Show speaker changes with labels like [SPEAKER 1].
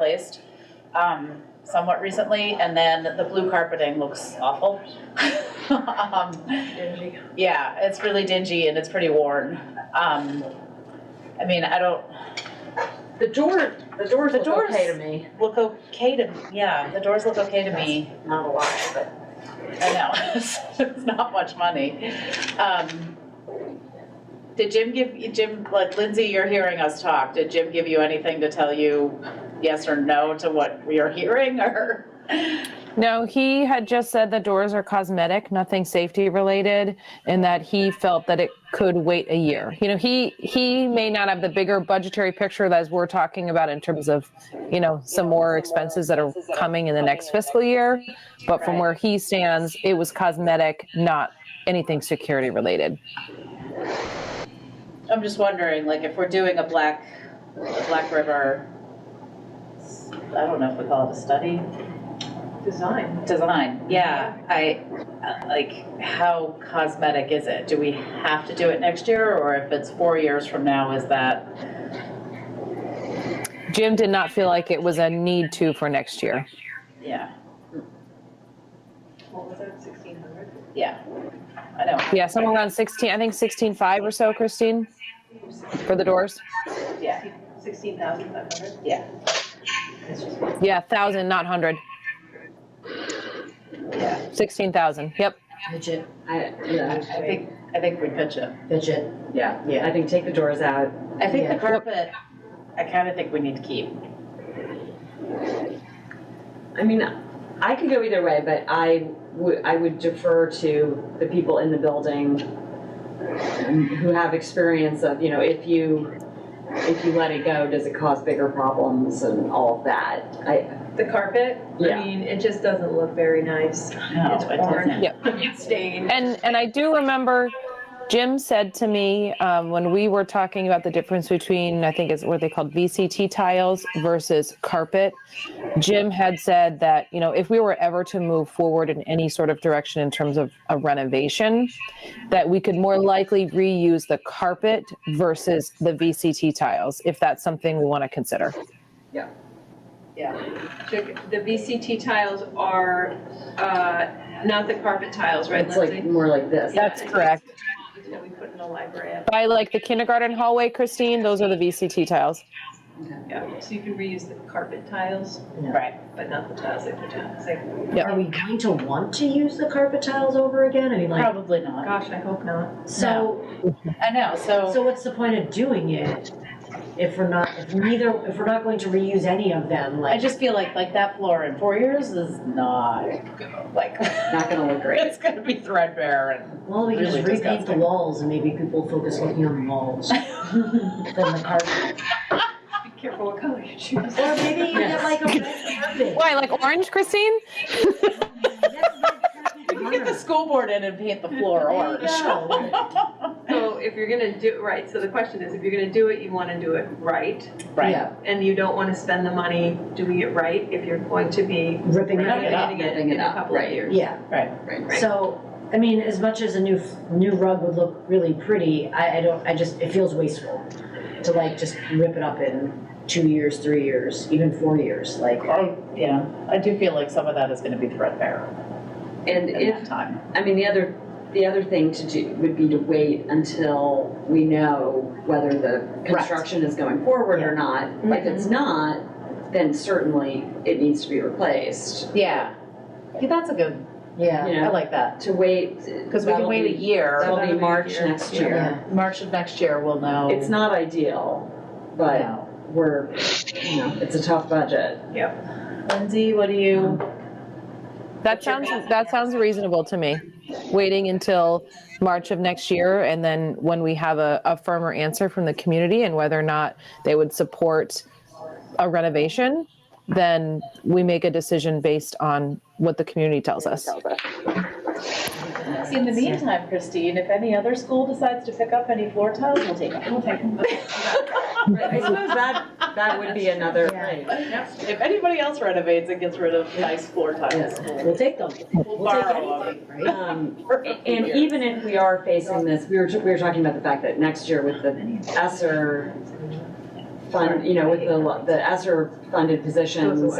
[SPEAKER 1] replaced um, somewhat recently, and then the blue carpeting looks awful. Um, yeah, it's really dingy and it's pretty worn. Um, I mean, I don't,
[SPEAKER 2] The door, the doors
[SPEAKER 1] The
[SPEAKER 2] look
[SPEAKER 1] doors-
[SPEAKER 2] okay to me.
[SPEAKER 1] look okay to, yeah, the doors look okay to me.
[SPEAKER 2] Not a lot, but
[SPEAKER 1] I know, it's it's not much money. Um, Did Jim give, Jim, like Lindsay, you're hearing us talk, did Jim give you anything to tell you yes or no to what we are hearing, or?
[SPEAKER 3] No, he had just said the doors are cosmetic, nothing safety related, and that he felt that it could wait a year. You know, he he may not have the bigger budgetary picture that we're talking about in terms of, you know, some more expenses that are coming in the next fiscal year, but from where he stands, it was cosmetic, not anything security related.
[SPEAKER 1] I'm just wondering, like, if we're doing a Black, a Black River, I don't know if we call it a study,
[SPEAKER 2] design.
[SPEAKER 1] design, yeah, I, uh, like, how cosmetic is it? Do we have to do it next year, or if it's four years from now, is that?
[SPEAKER 3] Jim did not feel like it was a need to for next year.
[SPEAKER 1] Yeah,
[SPEAKER 2] What was that, sixteen hundred?
[SPEAKER 1] yeah, I know,
[SPEAKER 3] Yeah, somewhere around 16, I think 16.5 or so, Christine, for the doors.
[SPEAKER 1] yeah,
[SPEAKER 2] Sixteen thousand five hundred?
[SPEAKER 1] yeah.
[SPEAKER 3] Yeah, 1,000, not 100.
[SPEAKER 1] Yeah,
[SPEAKER 3] 16,000, yep.
[SPEAKER 4] Pitch it, I,
[SPEAKER 1] I I
[SPEAKER 4] yeah,
[SPEAKER 1] think, I think we pitch it.
[SPEAKER 4] pitch it.
[SPEAKER 1] Yeah.
[SPEAKER 4] I think take the doors out.
[SPEAKER 1] I think the
[SPEAKER 4] Yeah.
[SPEAKER 1] carpet, I kind of think we need to keep.
[SPEAKER 4] I mean, I could go either way, but I would, I would defer to the people in the building who have experience of, you know, if you, if you let it go, does it cause bigger problems and all of that? I,
[SPEAKER 2] The carpet, I
[SPEAKER 4] Yeah.
[SPEAKER 2] mean, it just doesn't look very nice.
[SPEAKER 1] No,
[SPEAKER 2] It's
[SPEAKER 1] it
[SPEAKER 2] worn.
[SPEAKER 1] doesn't.
[SPEAKER 3] Yep.
[SPEAKER 2] It's stained.
[SPEAKER 3] And, and I do remember Jim said to me, um, when we were talking about the difference between, I think it's what they called VCT tiles versus carpet, Jim had said that, you know, if we were ever to move forward in any sort of direction in terms of a renovation, that we could more likely reuse the carpet versus the VCT tiles, if that's something we want to consider.
[SPEAKER 2] The the VCT tiles are, uh, not the carpet tiles, right,
[SPEAKER 4] it's like
[SPEAKER 2] Lindsay?
[SPEAKER 4] more like this.
[SPEAKER 2] Yeah.
[SPEAKER 3] That's correct.
[SPEAKER 2] That we put in the library,
[SPEAKER 3] By like the kindergarten hallway, Christine, those are the VCT tiles.
[SPEAKER 2] yeah, so you can reuse the carpet tiles,
[SPEAKER 1] Right.
[SPEAKER 2] but not the tiles they put down. It's like,
[SPEAKER 3] Yep.
[SPEAKER 5] Are we going to want to use the carpet tiles over again? I mean, like,
[SPEAKER 1] Probably not.
[SPEAKER 2] gosh, I hope not.
[SPEAKER 5] so,
[SPEAKER 1] I know, so,
[SPEAKER 5] so what's the point of doing it? If we're not, if neither, if we're not going to reuse any of them,
[SPEAKER 1] I
[SPEAKER 5] like,
[SPEAKER 1] just feel like, like that floor in four years is not, like,
[SPEAKER 4] Not gonna look great.
[SPEAKER 1] it's gonna be threadbare and.
[SPEAKER 5] well, we can just
[SPEAKER 1] really
[SPEAKER 5] repaint the
[SPEAKER 1] disgusting.
[SPEAKER 5] walls and maybe people focus looking on the walls. Than the carpet.
[SPEAKER 2] Be careful what color you choose.
[SPEAKER 5] Or maybe you get like a red carpet.
[SPEAKER 3] Why, like orange, Christine?
[SPEAKER 5] That's red carpet
[SPEAKER 1] We can get the
[SPEAKER 5] color.
[SPEAKER 1] school board in and paint the floor
[SPEAKER 5] There you
[SPEAKER 1] orange.
[SPEAKER 5] go.
[SPEAKER 2] So if you're gonna do, right, so the question is, if you're gonna do it, you wanna do it right,
[SPEAKER 1] Right,
[SPEAKER 4] Yeah,
[SPEAKER 2] and you don't wanna spend the money doing it right if you're going to be
[SPEAKER 5] Ripping it up.
[SPEAKER 2] renovating it
[SPEAKER 4] ripping it
[SPEAKER 2] in a
[SPEAKER 4] up,
[SPEAKER 2] couple of
[SPEAKER 4] right.
[SPEAKER 2] years.
[SPEAKER 5] Yeah.
[SPEAKER 1] right.
[SPEAKER 4] right.
[SPEAKER 5] So, I mean, as much as a new, new rug would look really pretty, I, I don't, I just, it feels wasteful to like just rip it up in two years, three years, even four years, like.
[SPEAKER 1] I, Oh, yeah, I do feel like some of that is gonna be threadbare
[SPEAKER 4] And
[SPEAKER 1] in
[SPEAKER 4] if
[SPEAKER 1] that time.
[SPEAKER 4] I mean, the other, the other thing to do would be to wait until we know whether the construction is going forward or not. If it's
[SPEAKER 1] Mm-hmm.
[SPEAKER 4] not, then certainly it needs to be replaced.
[SPEAKER 1] Yeah. Yeah, that's a good,
[SPEAKER 5] Yeah.
[SPEAKER 1] I like that,
[SPEAKER 4] To wait.
[SPEAKER 1] because we can
[SPEAKER 4] that'll
[SPEAKER 1] wait a
[SPEAKER 4] be-
[SPEAKER 1] year,
[SPEAKER 4] That'll be March next year.
[SPEAKER 5] Yeah.
[SPEAKER 1] March of next year, we'll know.
[SPEAKER 4] It's not ideal, but
[SPEAKER 1] No.
[SPEAKER 4] we're, you know, it's a tough budget.
[SPEAKER 1] Lindsay, what do you?
[SPEAKER 3] That sounds, that sounds reasonable to me. Waiting until March of next year and then when we have a, a firmer answer from the community and whether or not they would support a renovation, then we make a decision based on what the community tells us.
[SPEAKER 4] Mm-hmm.
[SPEAKER 1] In the meantime, Christine, if any other school decides to pick up any floor tiles, we'll take them.
[SPEAKER 4] I suppose that, that would be another, right.
[SPEAKER 1] If anybody else renovates and gets rid of nice floor tiles,
[SPEAKER 5] We'll take them.
[SPEAKER 1] we'll borrow them.
[SPEAKER 4] Um,
[SPEAKER 1] for a few
[SPEAKER 4] And
[SPEAKER 1] years.
[SPEAKER 4] even if we are facing this, we were, we were talking about the fact that next year with the ESSER fund, you know, with the, the ESER funded positions